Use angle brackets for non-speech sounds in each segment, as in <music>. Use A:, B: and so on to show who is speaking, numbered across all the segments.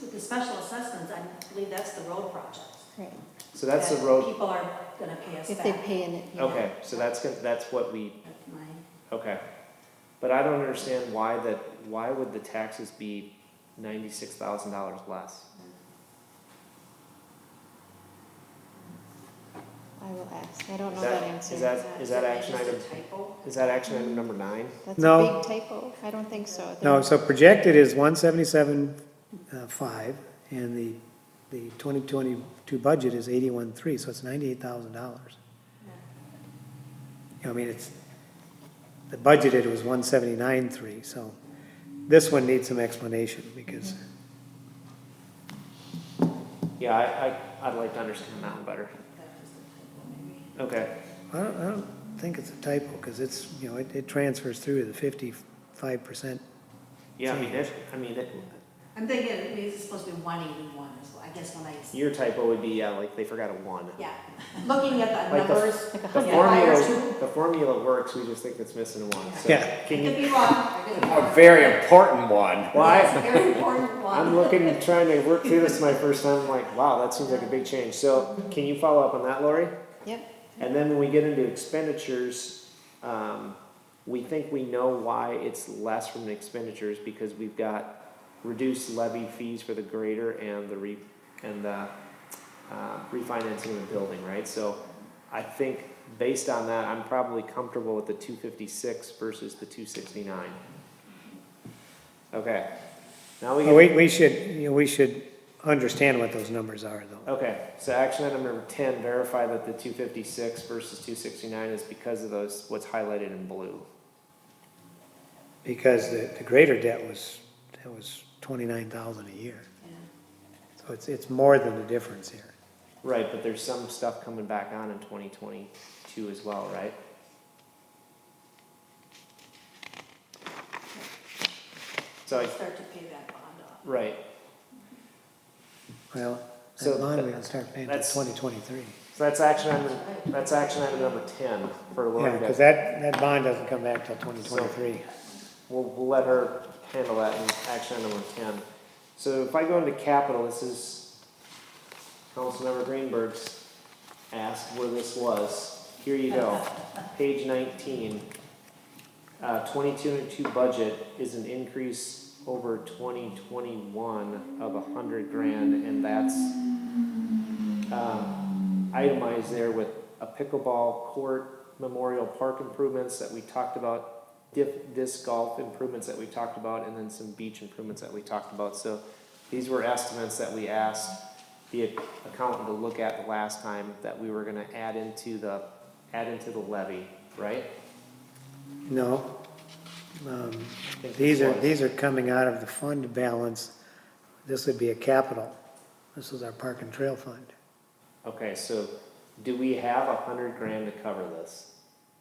A: With the special assessments, I believe that's the road project.
B: Right,
C: So that's the
A: that
C: road,
A: People are gonna pay us
B: if they
A: back.
B: pay in it. yeah.
C: okay, so that's, gonna- that's what we,
A: That's my-
C: okay. But I don't understand why that, why would the taxes be ninety-six thousand dollars less?
B: I will ask, I don't know
C: Is
B: that
C: that-
B: answer.
C: is that- is that action
A: Maybe
C: item,
A: it's a typo.
C: is that action item number nine?
B: That's a
D: No.
B: big typo, I don't think so.
D: No, so projected is one seventy-seven, uh, five, and the, the twenty twenty-two budget is eighty-one, three, so it's ninety-eight thousand dollars. You know, I mean, it's, the budgeted was one seventy-nine, three, so this one needs some explanation, because,
C: Yeah, I, I, I'd like to understand that one better.
A: That was a typo, maybe.
C: Okay,
D: I don't, I don't think it's a typo, because it's, you know, it, it transfers through to the fifty-five percent.
C: yeah, I mean, it, I mean, it,
A: I'm thinking, it means it's supposed to be one eighty-one, is what, I guess when I,
C: your typo would be, yeah, like, they forgot a one.
A: yeah, looking at the
C: Like the-
A: numbers. <laughs>
B: Like a
C: The
B: hundred.
C: formula, the formula works, we just think it's missing a one, so.
D: Yeah.
C: Can
A: Could
C: you,
A: be wrong. I could be
E: A
A: wrong.
E: very important one.
C: well, I,
A: It's a Very important one.
C: <laughs> I'm looking, trying to work through this my first time, I'm like, wow, that seems like a big change. So can you follow up on that, Lori?
B: Yep,
C: And then when we get into expenditures, um, we think we know why it's less from the expenditures because we've got reduced levy fees for the grader and the re, and the, uh, refinancing of the building, right? So I think based on that, I'm probably comfortable with the two fifty-six versus the two sixty-nine. Okay, now we get.
D: Oh, We, we should, you know, we should understand what those numbers are, though.
C: Okay, so action item number ten, verify that the two fifty-six versus two sixty-nine is because of those, what's highlighted in blue.
D: Because the, the greater debt was, that was twenty-nine thousand a year. So it's, it's more than the difference here.
C: Right, but there's some stuff coming back on in twenty twenty-two as well, right? So, I-
A: Start to pay that bond off.
C: right,
D: Well,
C: So
D: that bond
C: that-
D: we gonna start paying in
C: that's-
D: twenty twenty-three.
C: so that's action item, that's action item number ten for
D: Yeah,
C: Lori.
D: because
C: to-
D: that, that bond doesn't come back till twenty twenty-three.
C: We'll, we'll let her handle that in action item number ten. So if I go into capital, this is Councilmember Greenberg's asked where this was. Here you go, page nineteen. Uh, twenty-two and two budget is an increase over twenty twenty-one of a hundred grand, and that's um, itemized there with a pickleball court, memorial park improvements that we talked about, dif- disc golf improvements that we talked about, and then some beach improvements that we talked about. So these were estimates that we asked the accountant to look at the last time that we were gonna add into the, add into the levy, right?
D: No. Um,
C: I think
D: These
C: this
D: are,
C: was.
D: these are coming out of the fund balance. This would be a capital. This is our park and trail fund.
C: Okay, so do we have a hundred grand to cover this?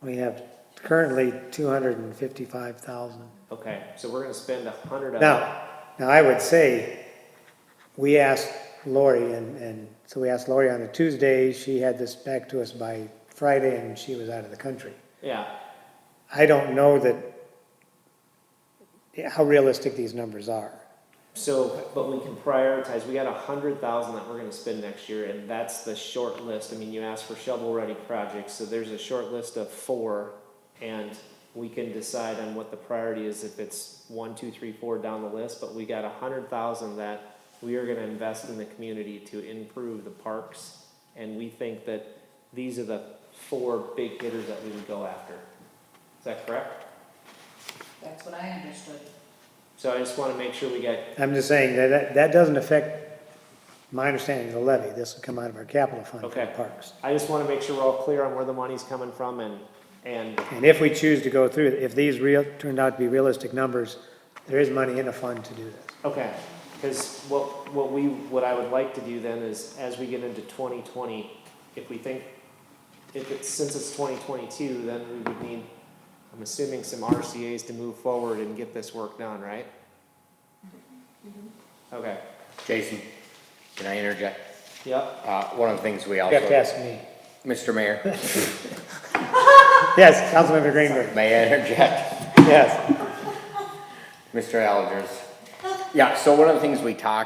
D: We have currently two hundred and fifty-five thousand.
C: Okay, so we're gonna spend a hundred of it.
D: Now, now I would say, we asked Lori, and, and, so we asked Lori on a Tuesday, she had this back to us by Friday, and she was out of the country.
C: Yeah,
D: I don't know that, yeah, how realistic these numbers are.
C: so, but we can prioritize, we got a hundred thousand that we're gonna spend next year, and that's the short list. I mean, you asked for shovel-ready projects, so there's a short list of four, and we can decide on what the priority is, if it's one, two, three, four down the list, but we got a hundred thousand that we are gonna invest in the community to improve the parks, and we think that these are the four big hitters that we would go after. Is that correct?
F: That's what I understood.
C: So I just wanna make sure we got
D: I'm just saying that, that, that doesn't affect my understanding of the levy, this will come out of our capital fund for the
C: Okay.
D: parks.
C: I just wanna make sure we're all clear on where the money's coming from and, and,
D: And if we choose to go through, it, if these real, turned out to be realistic numbers, there is money in a fund to do this.
C: okay. Cause what, what we, what I would like to do then is, as we get into twenty twenty, if we think, if it's, since it's twenty twenty-two, then we would need, I'm assuming some RCA's to move forward and get this work done, right? Okay,
E: Jason, can I interject?
C: yep,
E: Uh, one of the things we
D: You have to
E: also,
D: ask me.
E: Mr. Mayor,
D: Yes, Councilmember Greenberg,
E: may I interject? <laughs>
D: yes.
E: Mr. Algers. Yeah, so one of the things we talked